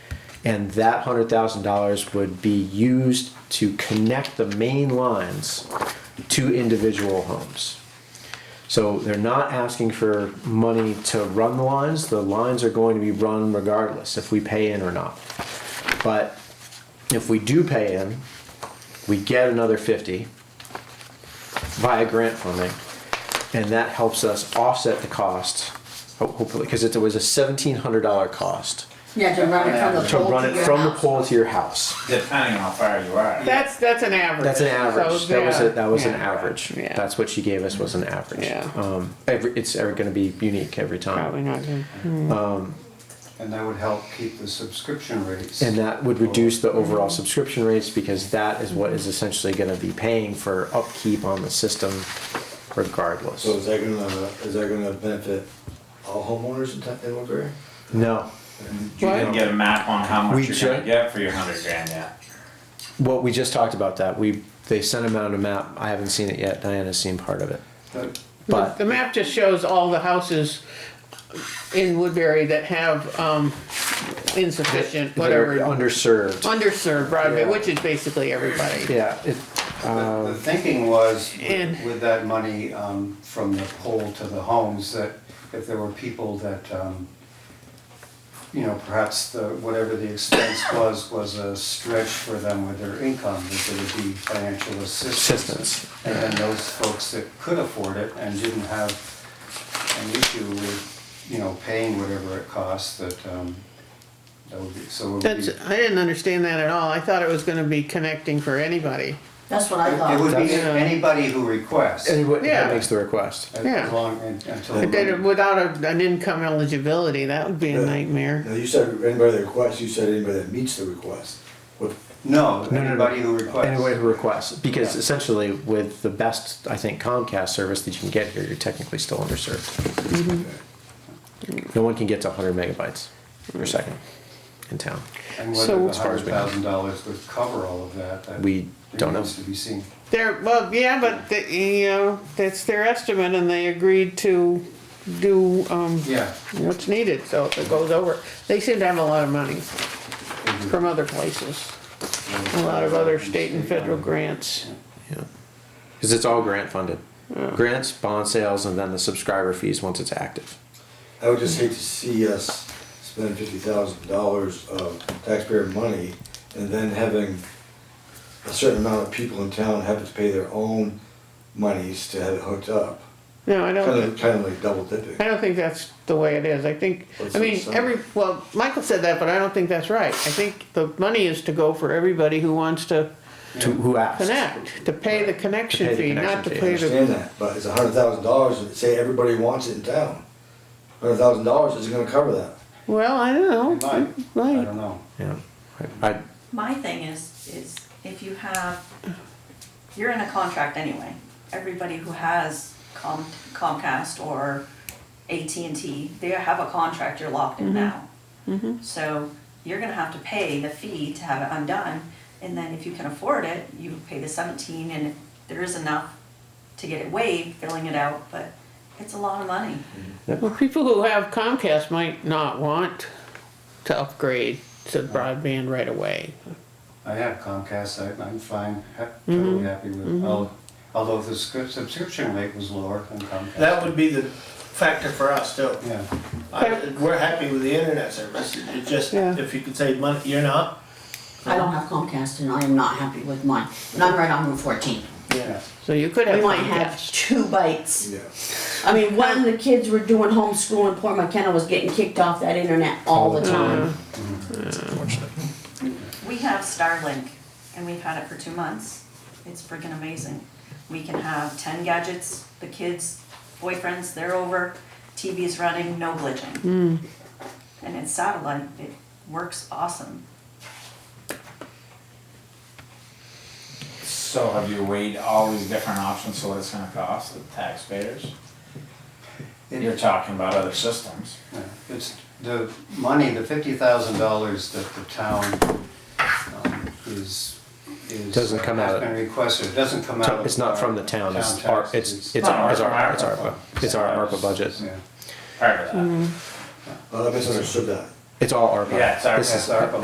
And that hundred thousand dollars would be used to connect the main lines to individual homes. So they're not asking for money to run the lines. The lines are going to be run regardless if we pay in or not. But if we do pay in, we get another fifty via grant funding, and that helps us offset the cost, ho- hopefully, because it was a seventeen hundred dollar cost Yeah, to run it from the to pole run to it your from the house. pole to your house. depending on how far you are. That's, that's an average. That's an average. So, That was yeah, a, that was an yeah. average. Yeah. That's what she gave us was an average. Yeah. Um, every, it's ever going to be unique every time. Probably not good. And that would help keep the subscription rates. And that would reduce the overall subscription rates because that is what is essentially gonna be paying for upkeep on the system regardless. So is that gonna, is that gonna benefit all homeowners in Ti- in Woodbury? No, You didn't get a map on how much We you're ju- gonna get for your hundred grand yet. what we just talked about that, we, they sent them out a map, I haven't seen it yet, Diana's seen part of it. But But The map just shows all the houses in Woodbury that have, um, insufficient, they're whatever, underserved, underserved broadband, Yeah. which is basically everybody. yeah, it, the- the thinking was, and- with with that money um, from the poll to the homes, that if there were people that, um, you know, perhaps the, whatever the expense was, was a stretch for them with their income, that there would be financial Assistance. assistance. And then those folks that could afford it and didn't have an issue with, you know, paying whatever it costs, that, um, that would be, so it would be. That's, I didn't understand that at all. I thought it was gonna be connecting for anybody. That's what I It would thought. be That's- anybody who requests. and what, Yeah. that makes the request. as yeah. long- until But the Mm-hmm. then money- without a- an income eligibility, that would be a Yeah. nightmare. Now, you said anybody that requests, you said anybody that meets the request. What, No, No, no, no. anybody who Anybody requests. who requests, because Yeah. essentially with the best, I think Comcast service that you can get here, you're technically still underserved. No one can get to hundred megabytes per second in town. And So- whether the As far as hundred we know. thousand dollars would cover all of that, that We don't know. remains to be seen. They're, well, yeah, but, the- you know, that's their estimate and they agreed to do, um, Yeah. what's needed, so if it goes over, they seem to have a lot of money it'd be- from other places, a lot of other state and federal grants. Yeah. Because it's all grant funded. Grants, bond sales, and then the subscriber fees once it's active. I would just hate to see us spend fifty thousand dollars of taxpayer money and then having a certain amount of people in town have to pay their own monies to have it hooked up. No, I Kind don't, of, kind of like double dipping. I don't think that's the way it is, I think, What's I mean, the sum? every, well, Michael said that, but I don't think that's right. I think the money is to go for everybody who wants to To who asks? connect, to pay the To pay connection the fee, not to connection fee, pay the understand that, but it's a hundred thousand dollars, say everybody wants it in town. Hundred thousand dollars isn't gonna cover that. Well, I don't It know. might. I Right. don't know. Yeah. I, I- My thing is, is if you have, you're in a contract anyway. Everybody who has Com- Comcast or AT&T, they have a contract, you're locked in now. So you're gonna have to pay the fee to have it undone, and then if you can afford it, you pay the seventeen, and if there is enough to get it waived, billing it out, but it's a lot of money. Well, people who have Comcast might not want to upgrade to broadband right away. I have Comcast, I, I'm fine, ha- Mm-hmm. totally happy with, al- although the scri- subscription rate was lower than Comcast. That would be the factor for us too. Yeah, I- We're happy with the internet service, it just, Yeah. if you could save money, you're not? I don't have Comcast and I am not happy with mine. And I'm right on Route 14. yeah. So you could have We might have Comcast. two bites. Yeah. I mean, when the kids were doing homeschool and poor McKenna was getting kicked off that internet all the time. We have Starlink, and we've had it for two months. It's freaking amazing. We can have ten gadgets, the kids, boyfriends, they're over, TV's running, no glitching. And it's satellite, it works awesome. So have you weighed all these different options, so what it's gonna cost the taxpayers? You're talking about other systems. Yeah, It's the money, the fifty thousand dollars that the town um, is, is. uh, Doesn't come out of- Has been requested, it doesn't come out of. it's not from the our town, it's, town our- taxes. it's, it's our, it's our, it's our, it's our ARPA budget. Yeah, Part of that. Well, I misunderstood that. It's all ARPA. Yeah, it's our- This it's is- our-